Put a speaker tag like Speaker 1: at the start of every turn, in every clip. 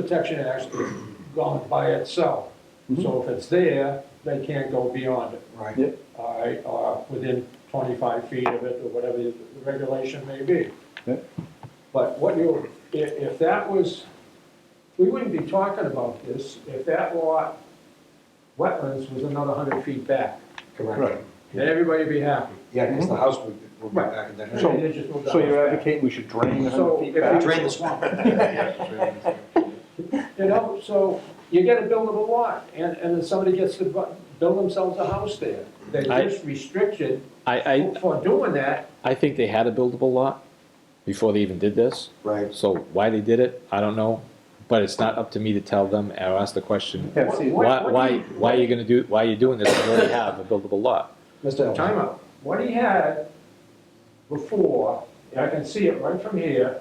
Speaker 1: Protection Act's gone by itself.
Speaker 2: Mm-hmm.
Speaker 1: So if it's there, they can't go beyond it,
Speaker 3: Right.
Speaker 1: all right, or within twenty-five feet of it, or whatever the regulation may be.
Speaker 2: Yep.
Speaker 1: But what you, if, if that was, we wouldn't be talking about this if that lot, wetlands was another hundred feet back.
Speaker 3: Correct.
Speaker 2: Right.
Speaker 1: Then everybody would be happy.
Speaker 3: Yeah, because the house would, would be back in
Speaker 2: So-
Speaker 3: that.
Speaker 1: And it just moved
Speaker 2: So you're
Speaker 1: out.
Speaker 2: advocating we should drain the
Speaker 1: So
Speaker 2: hundred feet
Speaker 1: if
Speaker 2: back?
Speaker 3: Drain the swamp.
Speaker 1: You know, so you get a buildable lot, and, and then somebody gets to bu- build themselves a house there. They're
Speaker 4: I-
Speaker 1: just restricted
Speaker 4: I, I,
Speaker 1: for doing that.
Speaker 4: I think they had a buildable lot before they even did this.
Speaker 3: Right.
Speaker 4: So why they did it, I don't know, but it's not up to me to tell them or ask the question.
Speaker 2: Yeah, see,
Speaker 1: What-
Speaker 4: Why,
Speaker 1: what
Speaker 4: why,
Speaker 1: do you-
Speaker 4: why are you gonna do, why are you doing this when you already have a buildable lot?
Speaker 3: Mr. Elton.
Speaker 1: Time out. What he had before, and I can see it right from here,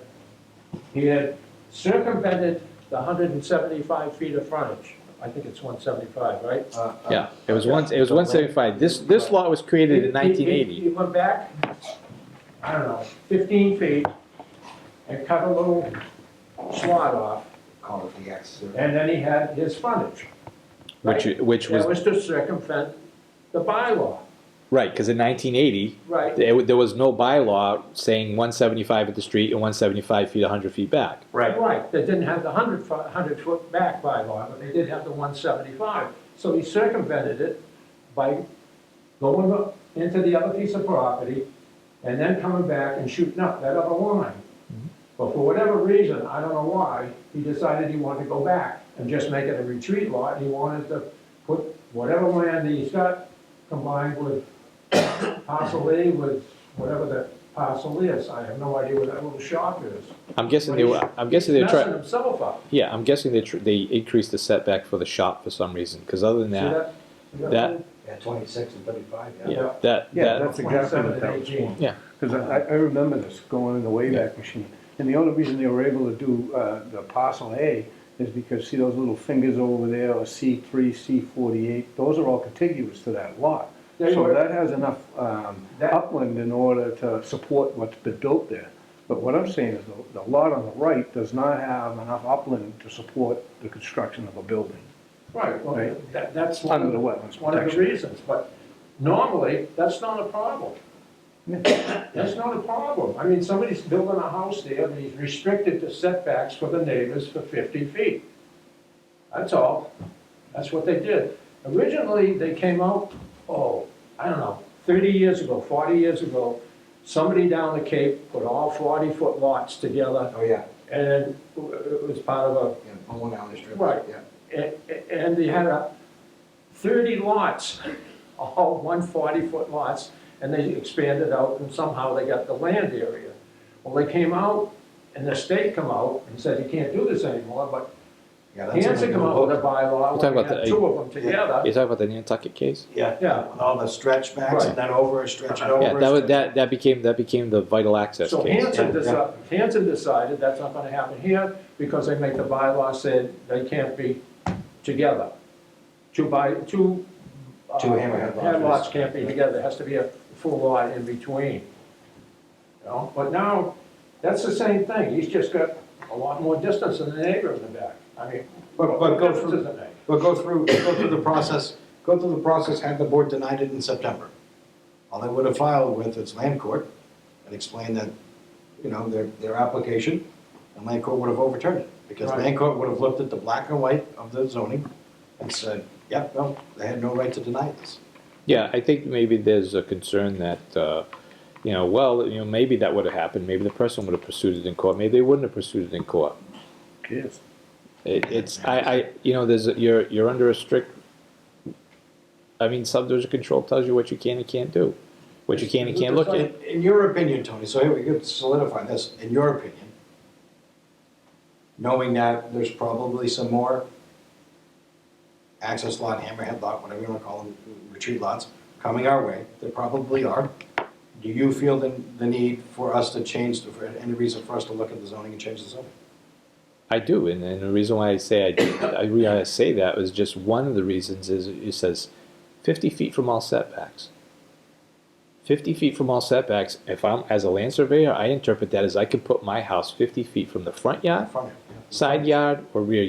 Speaker 1: he had circumvented the hundred and seventy-five feet of frontage. I think it's one seventy-five, right?
Speaker 3: Uh, uh,
Speaker 4: Yeah, it was once, it was one seventy-five. This, this lot was created in
Speaker 1: He- he-
Speaker 4: nineteen
Speaker 1: He
Speaker 4: eighty.
Speaker 1: he went back, I don't know, fifteen feet, and cut a little slot off,
Speaker 3: Call it the X. uh, or-
Speaker 1: And then he had his frontage.
Speaker 4: Which,
Speaker 1: right?
Speaker 4: which
Speaker 1: That was
Speaker 4: was,
Speaker 1: to circumvent the bylaw,
Speaker 4: right, cause in nineteen eighty,
Speaker 1: right?
Speaker 4: there, wa- there was no bylaw saying one seventy-five at the street and one seventy-five feet, hundred feet back.
Speaker 1: Right, they didn't have the hundred, hundred foot back bylaw, but they did have the one seventy-five. So he circumvented it by going up into the other piece of property and then coming back and shooting up that other line. But for whatever reason, I don't know why, he decided he wanted to go back and just make it a retreat lot. He wanted to put whatever land he's got combined with parcel A with whatever that parcel is. I have no idea where that little shop is.
Speaker 4: I'm guessing they were, I'm guessing they were
Speaker 1: Messing
Speaker 4: trying,
Speaker 1: himself up.
Speaker 4: yeah, I'm guessing they, tr- they increased the setback for the shop for some reason, cause other than
Speaker 1: See
Speaker 4: that,
Speaker 1: that? You got
Speaker 4: That-
Speaker 3: Yeah, twenty-six and thirty-five, yeah.
Speaker 1: Yeah.
Speaker 4: Yeah, that,
Speaker 2: Yeah,
Speaker 4: that,
Speaker 2: that's exactly
Speaker 1: 27
Speaker 2: what that
Speaker 1: and
Speaker 2: was
Speaker 1: 18.
Speaker 2: for.
Speaker 4: Yeah.
Speaker 2: Because I, I remember this going in the Wayback Machine. And the only reason they were able to do, uh, the parcel A is because, see those little fingers over there, or C three, C forty-eight, those are all contiguous to that lot.
Speaker 1: They
Speaker 2: So
Speaker 1: were-
Speaker 2: that has enough, um,
Speaker 1: That-
Speaker 2: upland in order to support what's been built there. But what I'm saying is the, the lot on the right does not have enough upland to support the construction of a building
Speaker 1: Right, well,
Speaker 2: Right.
Speaker 1: that, that's one
Speaker 2: under the
Speaker 1: of,
Speaker 2: wetlands
Speaker 1: one of the
Speaker 2: protection.
Speaker 1: reasons, but normally, that's not a problem. That's not a problem. I mean, somebody's building a house there, and he's restricted to setbacks for the neighbors for fifty feet. That's all. That's what they did. Originally, they came out, oh, I don't know, thirty years ago, forty years ago, somebody down the Cape put all forty-foot lots together,
Speaker 3: Oh, yeah,
Speaker 1: and it was part of a
Speaker 3: yeah, on one alley strip.
Speaker 1: Right.
Speaker 3: Yeah.
Speaker 1: and, and they had a thirty lots, all one forty-foot lots, and they expanded out, and somehow they got the land area. Well, they came out, and the state come out and said, you can't do this anymore, but
Speaker 3: Yeah, that's
Speaker 1: Hanson
Speaker 3: another
Speaker 1: come out with a
Speaker 3: book.
Speaker 1: bylaw,
Speaker 4: You're talking
Speaker 1: we
Speaker 4: about
Speaker 1: had
Speaker 4: the-
Speaker 1: two of them together,
Speaker 4: you talking about the Nantucket case?
Speaker 3: Yeah,
Speaker 1: yeah.
Speaker 3: with all the stretch backs and then over, stretch it over.
Speaker 4: Yeah, that was,
Speaker 3: stretch-
Speaker 4: that, that became, that became the vital access
Speaker 1: So
Speaker 4: case.
Speaker 1: Hanson
Speaker 3: Yeah, yeah.
Speaker 1: decided, Hanson decided that's not gonna happen here, because they make the bylaw said they can't be together. Two by, two. uh,
Speaker 3: Two hammerhead lodges.
Speaker 1: Handlots can't be together, there has to be a full lot in between. You know, but now, that's the same thing, he's just got a lot more distance than the neighbor in the back, I mean.
Speaker 3: But,
Speaker 1: what
Speaker 3: but go
Speaker 1: difference
Speaker 3: through,
Speaker 1: does it make?
Speaker 3: but go through, go through the process, go through the process, had the board denied it in September. All they would have filed with is land court and explained that, you know, their, their application, and land court would have overturned it. Because
Speaker 1: Right.
Speaker 3: land court would have looked at the black and white of the zoning and said, yep, no, they had no right to deny this.
Speaker 4: Yeah, I think maybe there's a concern that, uh, you know, well, you know, maybe that would have happened, maybe the person would have pursued it in court, maybe they wouldn't have pursued it in court.
Speaker 2: Yes.
Speaker 4: It, it's, I, I, you know, there's, a- you're, you're under a strict, I mean, subdivision control tells you what you can and can't do, what you can and can't look at.
Speaker 3: In, in your opinion, Tony, so here we could solidify this, in your opinion, knowing that there's probably some more access lot, hammerhead lot, whatever you wanna call them, retreat lots, coming our way, there probably are. Do you feel the, the need for us to change, the- for any reason for us to look at the zoning and change the zoning?
Speaker 4: I do, and, and the reason why I say I, do- I, re- I say that was just one of the reasons is it says fifty feet from all setbacks. Fifty feet from all setbacks. If I'm as a land surveyor, I interpret that as I can put my house fifty feet from the front yard,
Speaker 3: Front end, yeah.
Speaker 4: side yard, or rear